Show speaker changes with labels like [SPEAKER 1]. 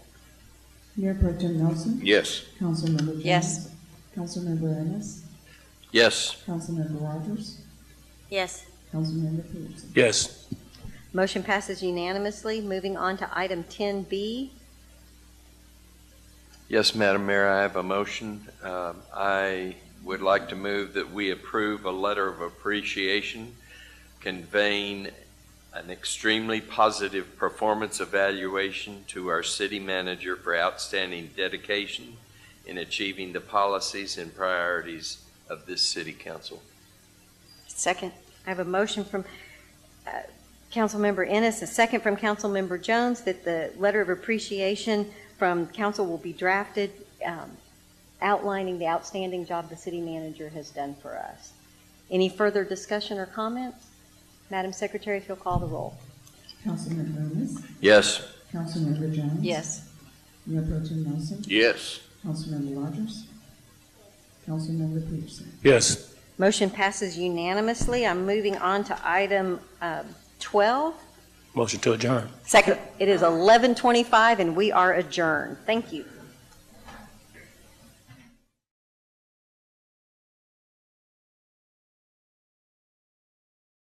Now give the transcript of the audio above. [SPEAKER 1] Mayor Pro Tem Nelson,
[SPEAKER 2] Yes.
[SPEAKER 1] Councilmember James.
[SPEAKER 3] Yes.
[SPEAKER 1] Councilmember Ennis,
[SPEAKER 2] Yes.
[SPEAKER 1] Councilmember Rogers,
[SPEAKER 3] Yes.
[SPEAKER 1] Councilmember Peterson.
[SPEAKER 2] Yes.
[SPEAKER 3] Motion passes unanimously. Moving on to item 10B.
[SPEAKER 2] Yes, Madam Mayor, I have a motion. Um, I would like to move that we approve a letter of appreciation conveying an extremely positive performance evaluation to our city manager for outstanding dedication in achieving the policies and priorities of this city council.
[SPEAKER 3] Second. I have a motion from uh, Councilmember Ennis, a second from Councilmember Jones, that the letter of appreciation from council will be drafted um, outlining the outstanding job the city manager has done for us. Any further discussion or comments? Madam Secretary, if you'll call the roll.
[SPEAKER 1] Councilmember Ennis,
[SPEAKER 2] Yes.
[SPEAKER 1] Councilmember Jones. Mayor Pro Tem Nelson,
[SPEAKER 2] Yes.
[SPEAKER 1] Councilmember Rogers, Councilmember Peterson.
[SPEAKER 4] Yes.
[SPEAKER 3] Motion passes unanimously. I'm moving on to item um, 12.
[SPEAKER 4] Motion to adjourn.
[SPEAKER 3] Second. It is 11:25, and we are adjourned. Thank you.